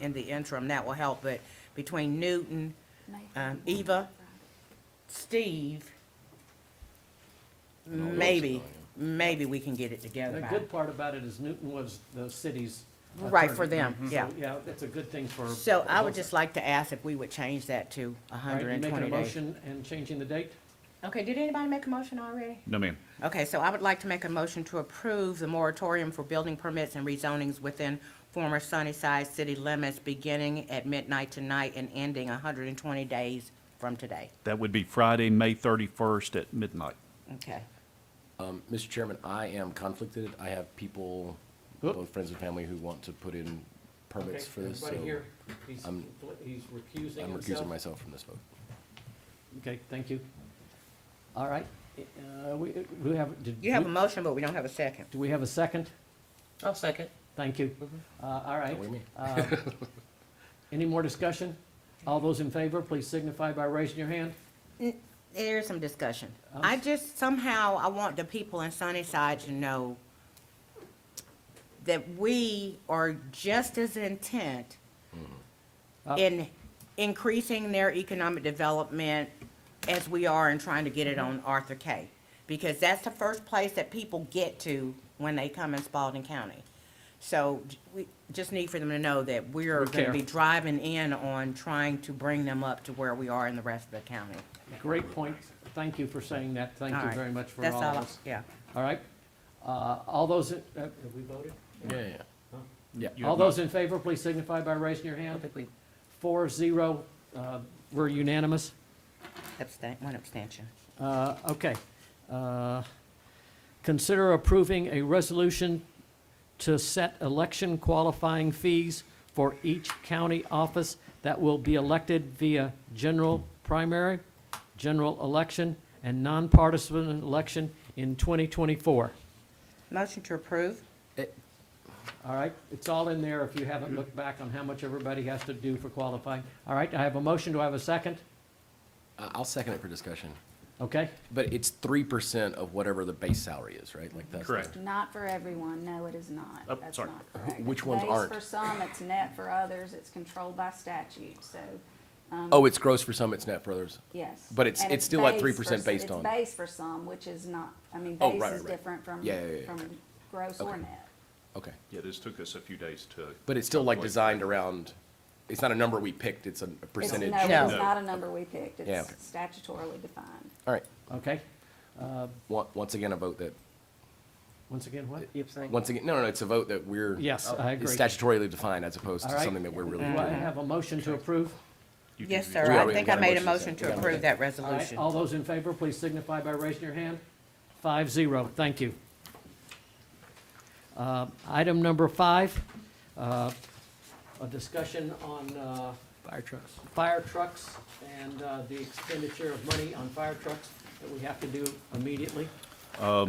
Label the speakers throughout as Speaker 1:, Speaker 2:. Speaker 1: in the interim, that will help, but between Newton, um,
Speaker 2: e-
Speaker 1: Eva, Steve,
Speaker 2: And all the rest
Speaker 1: maybe,
Speaker 2: of them,
Speaker 1: maybe we can get it together
Speaker 3: The
Speaker 1: by.
Speaker 3: good part about it is Newton was the city's
Speaker 1: Right, for
Speaker 3: attorney.
Speaker 1: them, yeah.
Speaker 3: So, Yeah, that's a good thing for.
Speaker 1: So I would
Speaker 3: both.
Speaker 1: just like to ask if we would change that to
Speaker 3: All right, you
Speaker 1: hundred and twenty
Speaker 3: Making a
Speaker 1: days.
Speaker 3: motion and changing the date?
Speaker 1: Okay, did anybody make a motion already?
Speaker 4: No, ma'am.
Speaker 1: Okay, so I would like to make a motion to approve the moratorium for building permits and rezonings within former Sunnyside city limits, beginning at midnight tonight and ending hundred and twenty days from today.
Speaker 4: That would be Friday, May 31st at midnight.
Speaker 1: Okay.
Speaker 2: Um, Mr. Chairman, I am conflicted. I have people,
Speaker 3: Oop.
Speaker 2: both friends and family, who want to put in permits
Speaker 3: Okay,
Speaker 2: for this, so
Speaker 3: Everybody here, he's,
Speaker 2: I'm-
Speaker 3: he's recusing
Speaker 2: I'm recusing
Speaker 3: himself.
Speaker 2: myself from this vote.
Speaker 3: Okay, thank you. All right, uh, we, we have, did.
Speaker 1: You have a
Speaker 3: we-
Speaker 1: motion, but we don't have a second.
Speaker 3: Do we have a second?
Speaker 5: I'll second.
Speaker 3: Thank you.
Speaker 1: Mm-hmm.
Speaker 3: Uh, all right.
Speaker 2: What do you mean?
Speaker 3: Uh, Any more discussion? All those in favor, please signify by raising your hand.
Speaker 1: There is some discussion.
Speaker 3: I'm
Speaker 1: I
Speaker 3: s-
Speaker 1: just, somehow, I want the people in Sunnyside to know that we are just as intent
Speaker 3: Uh,
Speaker 1: in increasing their economic development as we are in trying to get it on Arthur K. Because that's the first place that people get to when they come in Spalding County. So j- we just need for them to know that we're
Speaker 3: We
Speaker 1: gonna
Speaker 3: care.
Speaker 1: be driving in on trying to bring them up to where we are in the rest of the county.
Speaker 3: Great point. Thank you for saying that. Thank
Speaker 1: All
Speaker 3: you
Speaker 1: right.
Speaker 3: very much for
Speaker 1: That's
Speaker 3: all
Speaker 1: I-
Speaker 3: of us.
Speaker 1: Yeah.
Speaker 3: All right. Uh, All those, in- uh, have we voted?
Speaker 2: Yeah, yeah, yeah.
Speaker 4: You
Speaker 3: All
Speaker 4: have not-
Speaker 3: those in favor, please signify by raising your
Speaker 5: I
Speaker 3: hand.
Speaker 5: think we
Speaker 3: Four, zero, uh, we're unanimous.
Speaker 1: Abstain, one abstention.
Speaker 3: Uh, Okay. Uh, Consider approving a resolution to set election qualifying fees for each county office that will be elected via general primary, general election, and nonpartisan election in 2024.
Speaker 1: Motion to approve?
Speaker 3: All right, it's all in there if you haven't looked back on how much everybody has to do for qualifying. All right, I have a motion, do I have a second?
Speaker 2: I- I'll second it for discussion.
Speaker 3: Okay,
Speaker 2: But it's three percent of whatever the base salary is, right? Like that's. the-
Speaker 4: Correct.
Speaker 6: Not for everyone, no, it is not.
Speaker 4: Oh,
Speaker 6: That's
Speaker 4: sorry.
Speaker 6: not correct.
Speaker 2: Which ones
Speaker 6: Base
Speaker 2: aren't?
Speaker 6: for some, it's net for others, it's controlled by statute, so,
Speaker 2: Oh, it's gross for some, it's net for others.
Speaker 6: yes.
Speaker 2: But it's-
Speaker 6: And
Speaker 2: it's still at
Speaker 6: base
Speaker 2: 3%
Speaker 6: for-
Speaker 2: based on-
Speaker 6: It's base for some, which is not, I mean,
Speaker 2: Oh,
Speaker 6: base
Speaker 2: right,
Speaker 6: is
Speaker 2: right, right.
Speaker 6: different from,
Speaker 2: Yeah, yeah, yeah,
Speaker 6: from gross or net.
Speaker 2: Okay.
Speaker 7: Yeah, this took us a few days to.
Speaker 2: But it's still like
Speaker 7: calculate.
Speaker 2: designed around, it's not a number we picked, it's a a
Speaker 6: It's-
Speaker 2: percentage.
Speaker 6: No, it's
Speaker 1: No.
Speaker 6: not a number we picked,
Speaker 2: Yeah,
Speaker 6: it's
Speaker 2: okay.
Speaker 6: statutorily defined.
Speaker 2: All right.
Speaker 3: okay.
Speaker 2: Wa- Once again, a vote that,
Speaker 3: Once again, what?
Speaker 5: abstain.
Speaker 2: once again, no, no, no, it's a vote that we're. uh,
Speaker 3: Yes, I
Speaker 2: is
Speaker 3: agree.
Speaker 2: Statutorily defined as opposed
Speaker 3: All
Speaker 2: to
Speaker 3: right. Uh,
Speaker 2: something that we're really
Speaker 3: Do I
Speaker 2: doing.
Speaker 3: have a motion to approve?
Speaker 4: you can
Speaker 1: Yes,
Speaker 4: do-
Speaker 1: sir.
Speaker 2: We
Speaker 1: I
Speaker 2: already
Speaker 1: think I
Speaker 2: got a
Speaker 1: made a
Speaker 2: motion,
Speaker 1: motion
Speaker 2: so-
Speaker 1: to
Speaker 2: yeah.
Speaker 1: approve that
Speaker 3: All right,
Speaker 1: resolution.
Speaker 3: all those in favor, please signify by raising your hand. Five zero, thank you. Uh, Item number five, uh, a discussion on. Fire trucks. Fire trucks and uh, the expenditure of money on fire trucks that we have to do immediately.
Speaker 4: So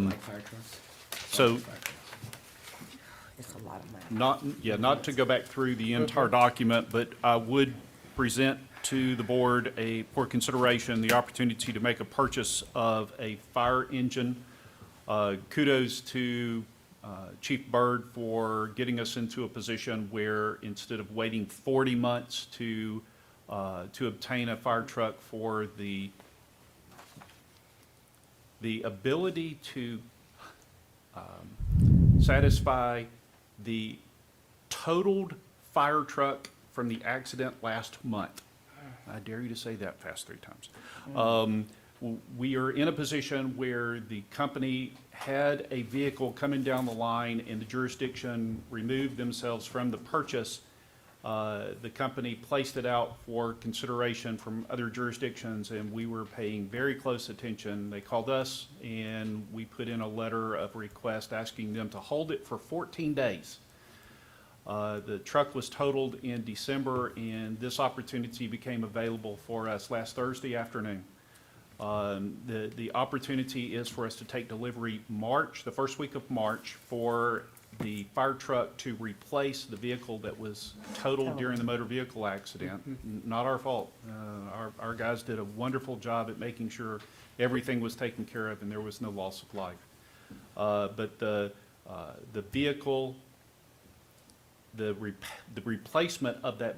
Speaker 1: It's a lot of money.
Speaker 4: not, yeah, not to go back through the entire document, but I would present to the board a, for consideration, the opportunity to make a purchase of a fire engine. Uh, Kudos to uh, Chief Byrd for getting us into a position where instead of waiting 40 months to, uh, to obtain a fire truck for the, the ability to satisfy the totaled fire truck from the accident last month. I dare you to say that fast three times. Um, w- We are in a position where the company had a vehicle coming down the line and the jurisdiction removed themselves from the purchase. Uh, The company placed it out for consideration from other jurisdictions, and we were paying very close attention. They called us, and we put in a letter of request asking them to hold it for 14 days. Uh, The truck was totaled in December, and this opportunity became available for us last Thursday afternoon. Um, The, the opportunity is for us to take delivery March, the first week of March, for the fire truck to replace the vehicle that was totaled during the motor vehicle accident. N- Not our fault. Uh, Our, our guys did a wonderful job at making sure everything was taken care of and there was no loss of life. Uh, But the, uh, the vehicle the rep- the replacement of that